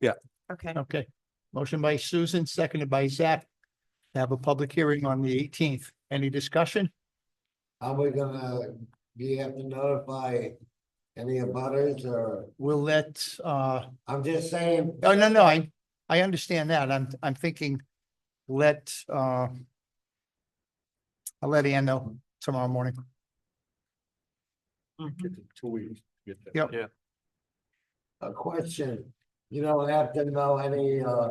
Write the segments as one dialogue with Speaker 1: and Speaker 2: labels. Speaker 1: Yeah.
Speaker 2: Okay,
Speaker 3: Okay. Motion by Susan, seconded by Zach. Have a public hearing on the eighteenth. Any discussion?
Speaker 4: Are we gonna, do you have to notify any abutters or,
Speaker 3: We'll let, uh,
Speaker 4: I'm just saying,
Speaker 3: oh, no, no, I, I understand that. I'm, I'm thinking, let, uh, I'll let Ann know tomorrow morning.
Speaker 1: Two weeks.
Speaker 3: Yep.
Speaker 1: Yeah.
Speaker 4: a question. You don't have to know any, uh,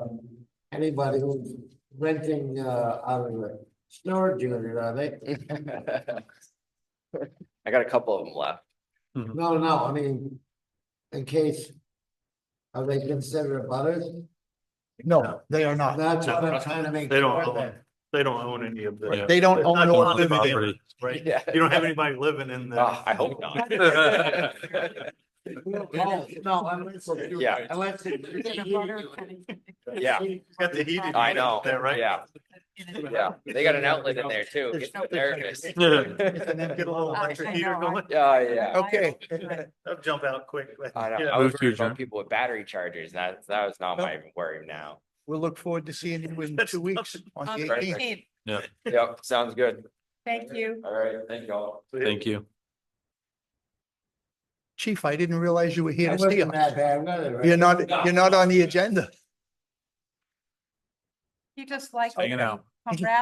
Speaker 4: anybody who's renting, uh, out of the storage unit, are they?
Speaker 5: I got a couple of them left.
Speaker 4: No, no, I mean, in case, are they considered abutters?
Speaker 3: No, they are not.
Speaker 4: That's what I'm trying to make.
Speaker 6: They don't
Speaker 4: sure
Speaker 6: own
Speaker 4: that-
Speaker 6: They don't own any of the.
Speaker 3: They don't
Speaker 6: It's
Speaker 3: own
Speaker 6: not
Speaker 3: or
Speaker 6: on the
Speaker 3: live in there.
Speaker 6: property, Right?
Speaker 5: Yeah.
Speaker 6: You don't have anybody living in the.
Speaker 5: Ah, I hope not.
Speaker 4: Oh, No, unless. it's-
Speaker 5: Yeah.
Speaker 4: Unless.
Speaker 5: Yeah,
Speaker 6: Got the heated
Speaker 5: I know.
Speaker 6: there, right?
Speaker 5: Yeah, yeah. They got an outlet in there too. Gets me nervous.
Speaker 3: And then
Speaker 6: Get a little electric
Speaker 2: I
Speaker 6: heater
Speaker 2: know, I-
Speaker 6: going.
Speaker 5: Yeah, yeah.
Speaker 3: Okay.
Speaker 6: That'll jump out quick. but-
Speaker 5: I know.
Speaker 6: Yeah.
Speaker 5: I was
Speaker 1: Move to
Speaker 5: worried about
Speaker 1: adjourn.
Speaker 5: people with battery chargers. and That, that was not my worry now.
Speaker 3: We'll look forward to seeing you in two weeks on
Speaker 2: On
Speaker 3: the
Speaker 2: the
Speaker 3: eighteenth.
Speaker 2: 15th.
Speaker 5: Yep, sounds good.
Speaker 2: Thank you.
Speaker 5: All right, thank y'all.
Speaker 1: Thank you.
Speaker 3: Chief, I didn't realize you were here
Speaker 4: I
Speaker 3: to stay.
Speaker 4: wasn't that bad, really, right?
Speaker 3: You're not, you're not on the agenda.
Speaker 2: He just likes.
Speaker 1: Hanging out.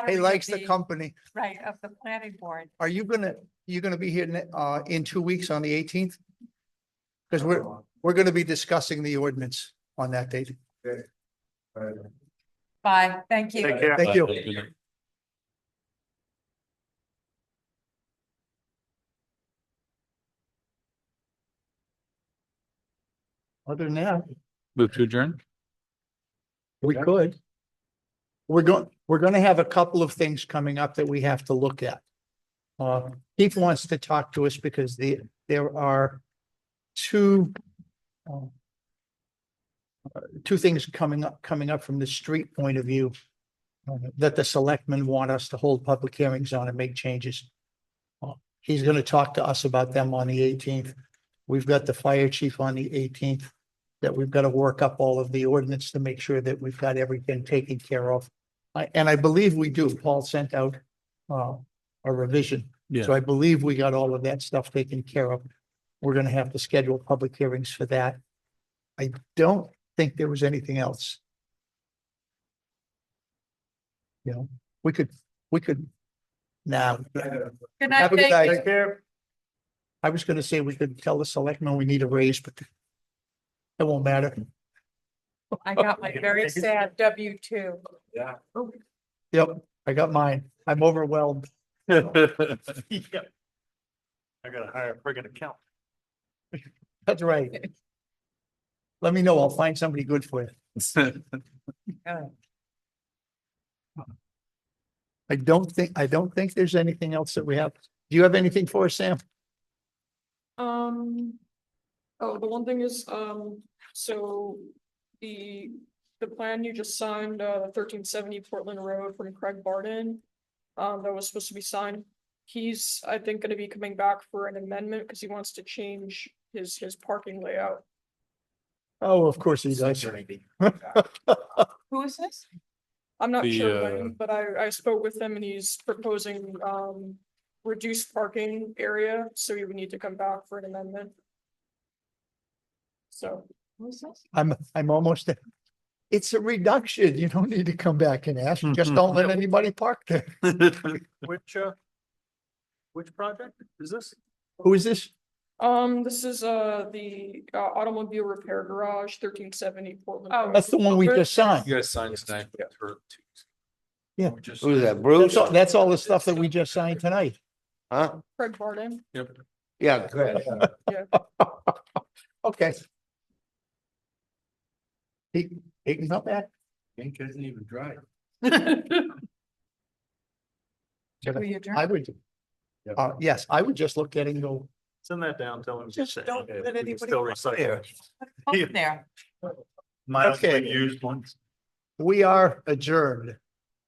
Speaker 3: He likes the company.
Speaker 2: Right, of the planning board.
Speaker 3: Are you gonna, you're gonna be here ne- uh in two weeks on the eighteenth? Because we're, we're gonna be discussing the ordinance on that date.
Speaker 4: Right.
Speaker 2: Bye, thank you.
Speaker 6: Take care.
Speaker 3: Thank you. Other than that,
Speaker 1: Move to adjourn?
Speaker 3: we could. We're going, we're gonna have a couple of things coming up that we have to look at. Uh, Keith wants to talk to us because the, there are two um, uh, two things coming up, coming up from the street point of view uh, that the selectmen want us to hold public hearings on and make changes. Uh, He's gonna talk to us about them on the eighteenth. We've got the fire chief on the eighteenth that we've got to work up all of the ordinance to make sure that we've got everything taken care of. I- And I believe we do. Paul sent out uh, a revision.
Speaker 1: Yeah.
Speaker 3: So I believe we got all of that stuff taken care of. We're going to have to schedule public hearings for that. I don't think there was anything else. You know, we could, we could, now,
Speaker 2: Good night,
Speaker 3: have a good
Speaker 2: thank you.
Speaker 3: night. I was going to say we could tell the selectmen we need a raise, but it won't matter.
Speaker 2: I got my very sad W two.
Speaker 6: Oh,
Speaker 3: Yep, I got mine. I'm overwhelmed.
Speaker 6: Yeah. I gotta hire a friggin' accountant.
Speaker 3: That's right. Let me know. I'll find somebody good for you. I don't think, I don't think there's anything else that we have. Do you have anything for us, Sam?
Speaker 7: Um, oh, the one thing is, um, so the, the plan you just signed, uh, thirteen seventy Portland Road from Craig Barden. Um, that was supposed to be signed. He's, I think, gonna be coming back for an amendment because he wants to change his, his parking layout.
Speaker 3: Oh, of course he does.
Speaker 2: Who is this?
Speaker 7: I'm not
Speaker 1: The,
Speaker 7: sure when,
Speaker 1: uh,
Speaker 7: but I, I spoke with him and he's proposing, um, reduced parking area, so he would need to come back for an amendment. So.
Speaker 2: Who is this?
Speaker 3: I'm, I'm almost there. It's a reduction. You don't need to come back and ask. Just don't let anybody park there.
Speaker 6: Which, uh, which project is this?
Speaker 3: Who is this?
Speaker 7: Um, this is, uh, the uh, automobile repair garage, thirteen seventy Portland.
Speaker 2: Oh.
Speaker 7: Road.
Speaker 3: That's the one we just signed.
Speaker 1: guys signed tonight.
Speaker 3: Yeah.
Speaker 4: Who's that,
Speaker 3: That's
Speaker 4: Bruce?
Speaker 3: all, that's all the stuff that we just signed tonight.
Speaker 4: Huh?
Speaker 7: Craig Barden.
Speaker 4: Yeah, good.
Speaker 3: Okay. He, he can come back.
Speaker 4: Ink doesn't even drive.
Speaker 2: Who you adjourned?
Speaker 3: I would.
Speaker 4: Yeah.
Speaker 3: Uh, yes, I would just look at it and go,
Speaker 6: Send that down, tell him.
Speaker 2: Just don't let anybody
Speaker 6: Still
Speaker 2: park
Speaker 6: recycle.
Speaker 3: there.
Speaker 2: Up Oh, There.
Speaker 6: Minus the
Speaker 3: Okay.
Speaker 6: used ones.
Speaker 3: We are adjourned.